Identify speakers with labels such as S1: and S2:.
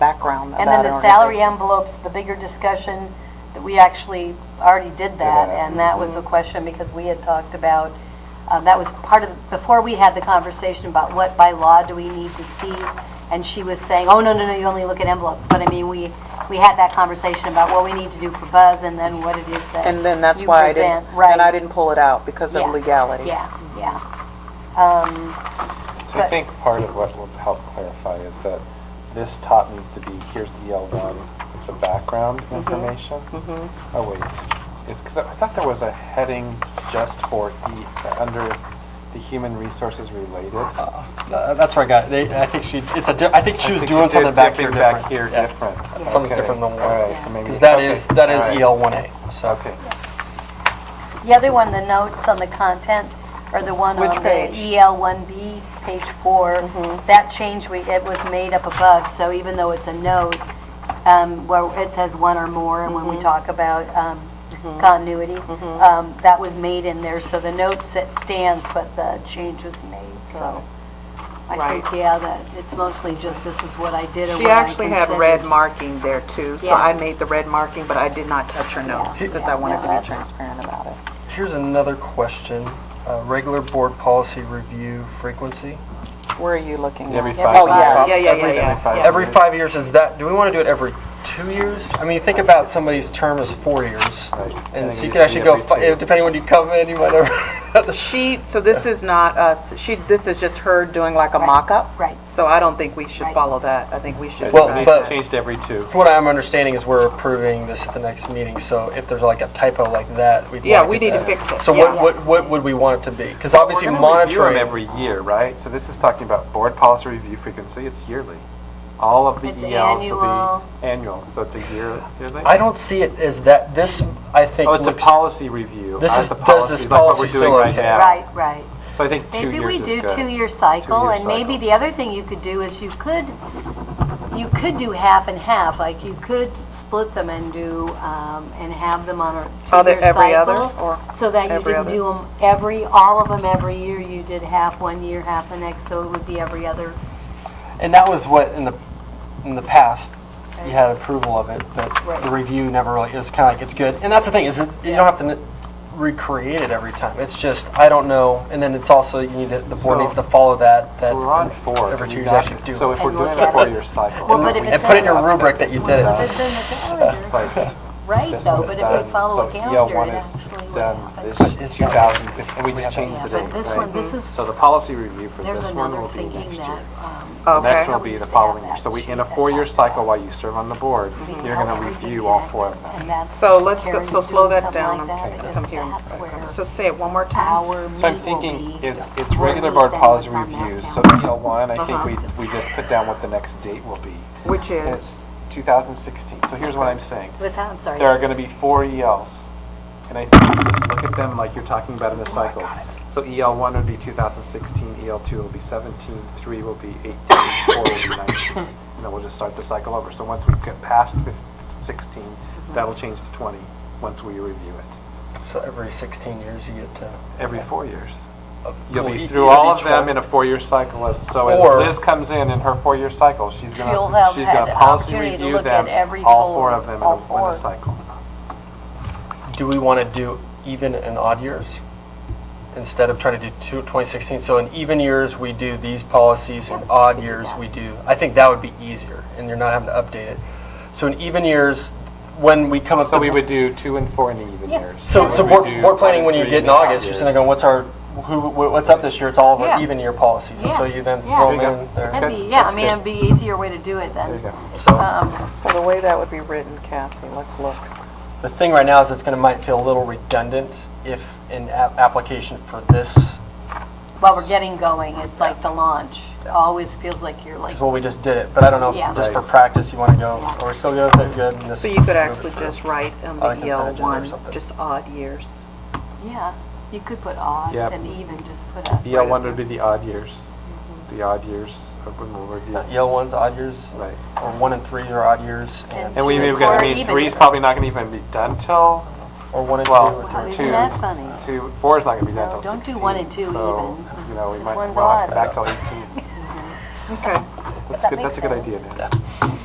S1: about
S2: And then the
S1: our
S2: salary
S1: organization.
S2: envelopes, the bigger discussion, that we actually already did that,
S3: that.
S2: and that
S1: Mm-hmm.
S2: was a question because we had talked about, um, that was part of, before we had the conversation about what by law do we need to see, and she was saying, oh, no, no, no, you only look at envelopes, but I mean, we, we had that conversation about what we need to do for Buzz and then what it is that
S1: And then that's
S2: you
S1: why I didn't,
S2: present. Right.
S1: and I didn't pull it out because of
S2: Yeah.
S1: legality.
S2: Yeah, yeah. Um,
S3: So I think part of what will help clarify is that this top needs to be, here's the LDON, the background information. Oh, wait, it's, because I thought there was a heading just for the, under the human resources related. I
S4: Uh, That's where I got, it. they, I think she, it's a, di- I think she was
S3: think
S4: doing
S3: did
S4: something back here
S3: dipping
S4: different.
S3: Back here
S4: Yeah.
S3: different.
S4: Something's
S3: Okay.
S4: different than
S3: All
S4: what,
S3: right, so maybe-
S4: because that is,
S3: okay,
S4: that is
S3: all right.
S4: EL one A, so.
S3: Okay.
S2: The other one, the notes on the content, or the E one
S1: Which
S2: on
S1: page?
S2: the EL 1B, page four,
S5: Mm-hmm.
S2: that change, we it was made up above, so even though it's a note, um, where it says one or more, and when
S5: Mm-hmm.
S2: we talk about um, continuity, um, that was made in there, so the note sa- stands, but the change was made, so. I think,
S5: Right.
S2: yeah, that, it's mostly just this is what I did or
S5: She
S2: what I
S5: actually had red
S2: considered.
S5: marking there too, so
S2: Yeah.
S5: I made the red marking, but I did not touch her notes because I
S1: No,
S5: wanted to be
S1: that's-
S5: transparent about it.
S4: Here's another question, uh, regular board policy review frequency.
S1: Where are you looking
S3: Every
S1: at?
S3: five.
S1: Oh,
S3: years.
S1: yeah.
S5: Yeah, yeah, yeah,
S3: Every
S5: yeah.
S3: five
S5: Yeah.
S4: Every
S3: years.
S4: five years is that, do we want to do it every two years? I mean, think about somebody's term is four years.
S3: Right.
S4: And
S3: I think it
S4: so you could
S3: should
S4: actually
S3: be
S4: go,
S3: every
S4: fi-
S3: two.
S4: depending when you come in, you might have.
S5: She, so this is not us, she, this is just her doing like a
S2: Right.
S5: mock-up?
S2: Right.
S5: So I don't think we should
S2: Right.
S5: follow that. I think we should. uh,
S4: Well,
S5: decide
S4: but-
S5: that.
S3: Changed every two.
S4: From what I'm understanding is we're approving this at the next meeting, so if there's like a typo like that, we'd
S5: Yeah,
S4: like
S5: we
S4: it
S5: need to
S4: to-
S5: fix it,
S4: So
S5: yeah.
S4: what, what, what would we want it to be? Because obviously
S3: We're gonna review 'em
S4: monitoring.
S3: every year, right? So this is talking about board policy review frequency, it's yearly. All of the
S2: It's
S3: ELs
S2: annual.
S3: will be annual, so it's a year, yearly?
S4: I don't see it as that, this, I think.
S3: Oh, it's a
S4: looks-
S3: policy review.
S4: This
S3: Uh,
S4: is-
S3: the
S4: does
S3: policy
S4: this
S3: is like what
S4: policy
S3: we're
S4: still
S3: doing right
S4: okay?
S3: now.
S2: Right, right.
S3: So I think two
S2: Maybe
S3: years
S2: we
S3: is
S2: do
S3: good.
S2: two-year cycle,
S3: Two-year
S2: and maybe
S3: cycles.
S2: the other thing you could do is you could, you could do half and half, like you could split them and do, um, and have them on a
S5: Are they
S2: two-year cycle.
S5: every other, or
S2: So that you
S5: every
S2: didn't
S5: other?
S2: do them every, all of them every year, you did half one year, half the next, so it would be every other.
S4: And that was what in the, in the past, you had approval of it, but
S2: Right.
S4: the review never really, it's kind of like, it's good. And that's the thing, is it, you don't have to n- recreate it every time. It's just, I don't know, and then it's also, you need to, the board
S3: So-
S4: needs to follow that, that.
S3: So we're on four.
S4: Every
S3: Can
S4: two
S3: we
S4: years
S3: not-
S4: actually do.
S3: So
S4: it.
S3: if we're
S2: And look
S3: doing
S2: at
S3: a
S2: it.
S3: four-year cycle.
S2: Well, but if
S3: we
S2: it's
S4: And put it in
S2: a-
S4: your rubric that you did
S2: If
S4: it.
S2: it's in the
S3: It's
S2: calendar,
S3: like,
S2: right,
S3: this
S2: though,
S3: one's
S2: but
S3: done.
S2: if we follow a
S3: So EL
S2: calendar,
S3: one
S2: it
S3: is
S2: actually would
S3: done
S2: happen.
S3: this
S4: It's
S3: 2000, this- and we
S4: we
S3: just
S4: haven't-
S3: changed
S2: Yeah,
S3: the
S2: but
S3: date,
S2: this
S3: right?
S2: one, this is,
S3: So the policy review for
S2: there's
S3: this one
S2: another
S3: will be next
S2: thinking
S3: year.
S2: that, um,
S3: The next
S5: Okay.
S3: one will be the following year. So we, in a four-year cycle while you serve on the board,
S2: Mhm.
S3: you're going to review all four of them.
S2: And that's-
S5: So let's, go-
S2: Karen's
S5: so slow
S2: doing
S5: that
S2: something
S5: down. I'm
S2: like that,
S5: come
S2: because
S5: here.
S2: That's where
S5: So say it one more time.
S2: our meat
S3: So I'm
S2: will
S3: thinking
S2: be.
S3: it's, it's
S2: We'll
S3: regular
S2: leave
S3: board
S2: then
S3: policy
S2: what's on that
S3: reviews, so
S2: calendar.
S3: EL one, I
S5: Uh-huh.
S3: think we, we just put down what the next date will be.
S5: Which
S3: And
S5: is,
S3: It's 2016. So here's what I'm saying.
S2: With that, I'm sorry.
S3: There are going to be four ELs. And I think you just look at them like you're talking about in
S2: Oh,
S3: a cycle. So EL one would be 2016, EL E two will be 17, three will be 18, four will be 19. And then we'll just start the cycle over. So once we get past fif- 16,
S2: Mm-hmm.
S3: that'll change to 20, once we review it,
S4: So every 16 years you get to.
S3: every four years.
S4: of-
S3: You'll
S4: well, e-
S3: be through
S4: either
S3: all
S4: each
S3: of them
S4: one-
S3: in a four-year cycle. as- So as
S4: Or-
S3: Liz comes in in her four-year cycle, she's
S2: You'll
S3: gonna,
S2: have
S3: she's
S2: had
S3: gonna
S2: the
S3: policy
S2: opportunity to
S3: review
S2: look at
S3: them,
S2: every
S3: all
S2: whole-
S3: four of them in
S2: all
S3: a- in
S2: four.
S3: a cycle.
S4: Do we want to do even and odd years? Instead of trying to do two, 2016, so in even years, we do these policies, in odd years, we do, I think that would be easier, and you're not having to update it. So in even years, when we come up.
S3: So
S4: to-
S3: we would do two and four in even
S2: Yeah.
S3: years.
S4: So, so
S3: we
S4: board,
S3: do
S4: board planning, when you
S3: three
S4: get in
S3: odd
S4: August, you're
S3: years.
S4: sitting there going, what's our, who, wh- what's up this year? It's all of
S2: Yeah.
S4: our even year policies, and so
S2: Yeah.
S4: you then
S2: Yeah.
S4: throw
S3: There you
S4: them in
S3: go.
S4: there.
S2: That'd
S3: That's
S2: be,
S3: good.
S2: yeah, I
S3: That's
S2: mean,
S3: good.
S2: it'd be easier way to do it
S3: There you
S2: then.
S3: go.
S4: So
S2: Um,
S5: so the way that would be written, Cassie, let's look.
S4: the thing right now is it's gonna, might feel a little redundant if an app- application for this
S2: While we're getting going, it's like the launch. It Always feels like you're like,
S4: is what we just did it, but I don't know,
S2: Yeah.
S4: if just for practice, you want to go, or we still go with it, good. and just
S5: So you
S4: move
S5: could
S4: it
S5: actually
S4: through.
S5: just write on
S4: On a
S5: the
S4: consent
S5: EL
S4: agenda or
S5: one,
S4: something.
S5: just odd years.
S2: yeah, you could put odd
S3: Yep.
S2: and even, just put a.
S3: EL one would be the odd years, the odd years of when we'll
S4: Uh,
S3: review.
S4: Yale ones, odd years,
S3: Right.
S4: or one and three are odd years, and,
S3: And we,
S2: Two
S3: we've
S2: and
S3: got,
S2: four
S3: I
S2: are
S3: mean,
S2: even
S3: three's
S2: years.
S3: probably not gonna even be done till,
S4: or one and two.
S3: well,
S4: or
S2: Wow,
S3: two.
S4: three.
S2: Oh, isn't that funny?
S3: Two, four's not gonna be
S2: No,
S3: done till
S2: don't do
S3: sixteen.
S2: one and two
S3: so,
S2: even.
S3: You know, we
S2: This
S3: might,
S2: one's
S3: we'll have to
S2: odd.
S3: back till eighteen.
S5: Okay.
S3: That's
S2: that
S3: good,
S2: makes
S3: that's a good
S2: sense.
S3: idea, Dan.